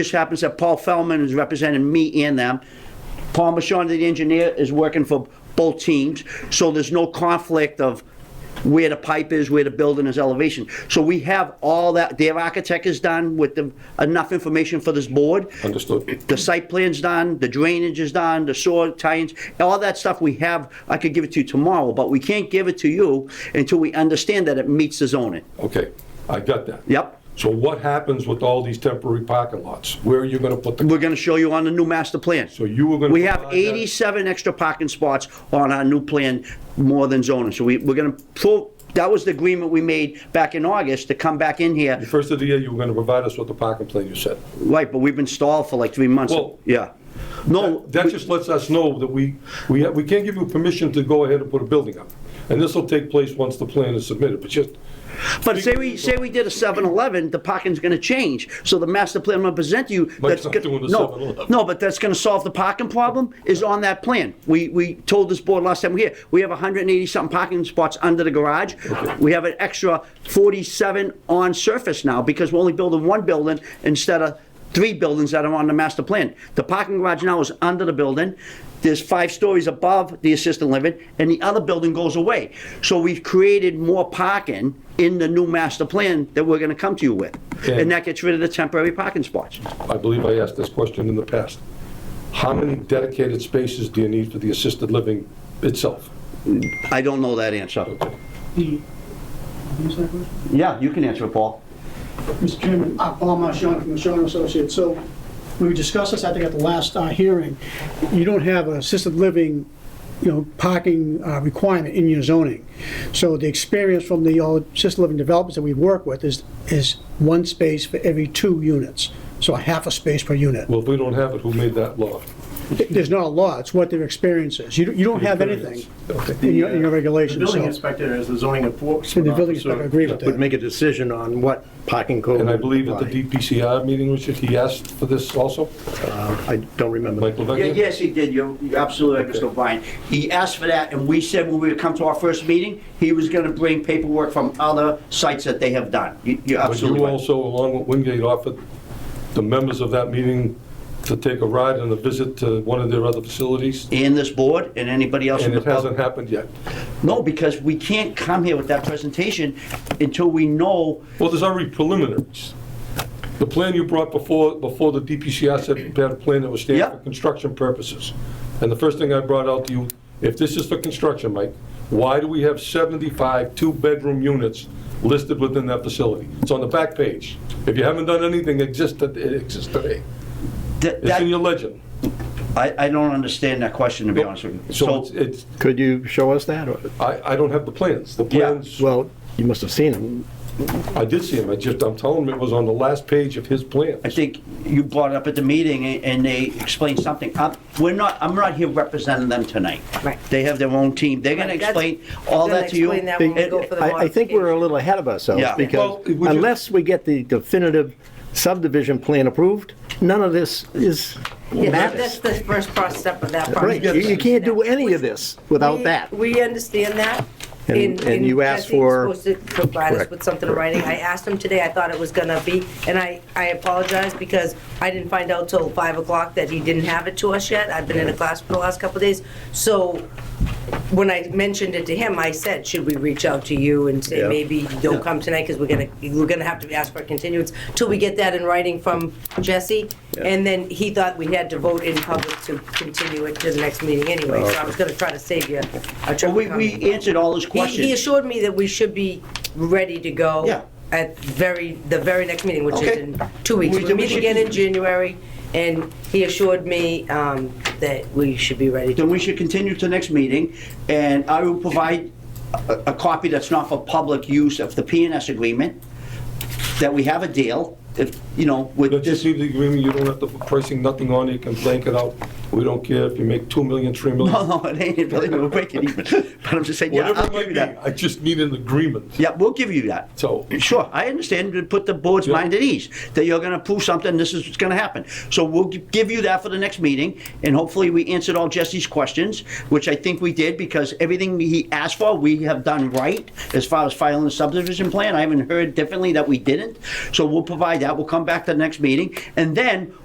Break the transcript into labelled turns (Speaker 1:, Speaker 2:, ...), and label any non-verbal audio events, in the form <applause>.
Speaker 1: Just happens that Paul Feldman is representing me and them. Paul Michon, the engineer, is working for both teams, so there's no conflict of where the pipe is, where the building is, elevation. So we have all that, their architect is done with the, enough information for this board.
Speaker 2: Understood.
Speaker 1: The site plan's done, the drainage is done, the soil tie-ins, all that stuff we have, I could give it to you tomorrow, but we can't give it to you until we understand that it meets the zoning.
Speaker 2: Okay, I got that.
Speaker 1: Yep.
Speaker 2: So what happens with all these temporary parking lots? Where are you gonna put the,
Speaker 1: We're gonna show you on the new master plan.
Speaker 2: so you were gonna.
Speaker 1: We have
Speaker 2: provide that-
Speaker 1: 87 extra parking spots on our new plan, more than zoning, so we, we're gonna, pull- that was the agreement we made back in August to come back in here,
Speaker 2: The first of the year, you were gonna provide us with the parking plan, you said.
Speaker 1: right, but we've been stalled for like three months,
Speaker 2: Well-
Speaker 1: yeah. No,
Speaker 2: That just lets us know that we, we, have- we can't give you permission to go ahead and put a building up. And this will take place once the plan is submitted, but just, uh,
Speaker 1: but say we, say we did a 7-Eleven, the parking's gonna change, so the master plan I'm gonna present to you. that's
Speaker 2: not
Speaker 1: go-
Speaker 2: doing the
Speaker 1: no,
Speaker 2: 7-Eleven.
Speaker 1: No, but that's gonna solve the parking problem, is on that plan. We, we told this board last time we were here, we have 180-something parking spots under the garage. We have an extra 47 on surface now, because we're only building one building instead of three buildings that are on the master plan. The parking garage now is under the building, there's five stories above the assisted living, and the other building goes away. So we've created more parking in the new master plan that we're gonna come to you with.
Speaker 2: Okay.
Speaker 1: And that gets rid of the temporary parking spots.
Speaker 2: I believe I asked this question in the past. How many dedicated spaces do you need for the assisted living itself?
Speaker 1: I don't know that answer.
Speaker 3: Who's that with?
Speaker 1: Yeah, you can answer it, Paul.
Speaker 3: Mr. Chairman, uh, Paul Marchand from Marchand Associates. So we discussed this, I think, at the last uh, hearing. You don't have an assisted living, you know, parking uh, requirement in your zoning. So the experience from the all assisted living developers that we work with is, is one space for every two units, so a half a space per unit.
Speaker 2: Well, if we don't have it, who made that law?
Speaker 3: There's not a law, it's what their experience is. You don't- you don't have anything in your, in your
Speaker 4: The
Speaker 3: regulations,
Speaker 4: building
Speaker 3: so.
Speaker 4: inspector is the zoning enforcement
Speaker 3: And the
Speaker 4: officer.
Speaker 3: building inspector agree with
Speaker 4: Would
Speaker 3: that.
Speaker 4: make a decision on what parking code.
Speaker 2: And I
Speaker 4: would
Speaker 2: believe at the
Speaker 4: apply.
Speaker 2: DPCR meeting, Richard, he asked for this also,
Speaker 4: Uh, I don't remember.
Speaker 2: Mike
Speaker 1: Yeah,
Speaker 2: Levesque?
Speaker 1: yes, he did. You're you're absolutely right, Mr. O'Brien. He asked for that, and we said when we would come to our first meeting, he was gonna bring paperwork from other sites that they have done. You- You're
Speaker 2: But you
Speaker 1: absolutely right.
Speaker 2: also, along with Wingate, offered the members of that meeting to take a ride and a visit to one of their other facilities,
Speaker 1: And this board and anybody else in
Speaker 2: and
Speaker 1: the
Speaker 2: it hasn't
Speaker 1: public.
Speaker 2: happened yet.
Speaker 1: No, because we can't come here with that presentation until we know,
Speaker 2: Well, there's already preliminaries. The plan you brought before, before the DPCR said you had a plan that was standing for
Speaker 1: Yeah.
Speaker 2: construction purposes. And the first thing I brought out to you, if this is for construction, Mike, why do we have 75 two-bedroom units listed within that facility? It's on the back page. If you haven't done anything, it exists, it exists today.
Speaker 1: that,
Speaker 2: It's in your
Speaker 1: that-
Speaker 2: legend.
Speaker 1: I, I don't understand that question, to be honest with you.
Speaker 2: So
Speaker 1: So,
Speaker 2: it's, it's,
Speaker 5: Could you show us that? or-
Speaker 2: I, I don't have the plans. The
Speaker 1: Yeah.
Speaker 2: plans,
Speaker 5: Well, you must have seen them.
Speaker 2: I did see them, I just, I'm telling him it was on the last page of his plan.
Speaker 1: I think you brought it up at the meeting, and- and they explained something. I'm- We're not, I'm not here representing them tonight.
Speaker 6: Right.
Speaker 1: They have their own team. They're gonna
Speaker 6: Right, that's-
Speaker 1: explain all
Speaker 6: they'll
Speaker 1: that to you.
Speaker 6: explain that when we go
Speaker 1: It-
Speaker 6: for the
Speaker 5: I, I think we're a little ahead of ourselves
Speaker 1: Yeah.
Speaker 2: Well,
Speaker 5: because
Speaker 2: would you-
Speaker 5: unless we get the definitive subdivision plan approved, none of this is
Speaker 6: Yeah, that's
Speaker 5: matters.
Speaker 6: the first part step of that
Speaker 5: Right, you,
Speaker 6: process.
Speaker 5: you can't do any of this without
Speaker 6: We-
Speaker 5: that.
Speaker 6: We understand that.
Speaker 5: And- and you asked
Speaker 6: Jesse
Speaker 5: for-
Speaker 6: was supposed to provide us
Speaker 5: Correct,
Speaker 6: with something in
Speaker 5: correct.
Speaker 6: writing. I asked him today, I thought it was gonna be, and I, I apologize because I didn't find out till five o'clock that he didn't have it to us yet. I've been in a class for the last couple of days. So when I mentioned it to him, I said, should we reach out to you and say,
Speaker 5: Yeah.
Speaker 6: maybe don't come tonight because we're gonna, we're gonna have to ask for a continuance till we get that in writing from Jesse? And then he thought we had to vote in public to continue it to the next meeting anyway, so I was gonna try to save you a
Speaker 1: Well,
Speaker 6: trip.
Speaker 1: We, we answered all those
Speaker 6: He, he
Speaker 1: questions.
Speaker 6: assured me that we should be ready to go.
Speaker 1: Yeah.
Speaker 6: At very, the very next meeting, which is
Speaker 1: Okay.
Speaker 6: in two weeks.
Speaker 1: We-
Speaker 6: We
Speaker 1: we
Speaker 6: meet
Speaker 1: should-
Speaker 6: again in January, and he assured me, um, that we should be ready to
Speaker 1: Then we should continue to next meeting, and I will provide a, a copy that's not for public use of the PNS agreement, that we have a deal, if, you know, with
Speaker 2: Don't you
Speaker 1: this, <laughs>
Speaker 2: see the agreement, you don't have to put pricing, nothing on it, you can blank it out. We don't care if you make 2 million,
Speaker 1: <laughs>
Speaker 2: 3 million.
Speaker 1: No, no, Oh, it ain't, believe me, we'll break it
Speaker 2: <laughs>
Speaker 1: even. But I'm just saying, yeah,
Speaker 2: Whatever
Speaker 1: I'll
Speaker 2: it
Speaker 1: give
Speaker 2: might
Speaker 1: you
Speaker 2: be,
Speaker 1: that.
Speaker 2: I just need an agreement.
Speaker 1: Yeah, we'll give you that.
Speaker 2: So-
Speaker 1: Sure, I understand, to put the board's
Speaker 2: Yeah.
Speaker 1: mind at ease, that you're gonna approve something, this is what's gonna happen. So we'll gi- give you that for the next meeting, and hopefully we answered all Jesse's questions, which I think we did, because everything he asked for, we have done right, as far as filing the subdivision plan, I haven't heard differently that we didn't. So we'll provide that, we'll come back to the next meeting, and then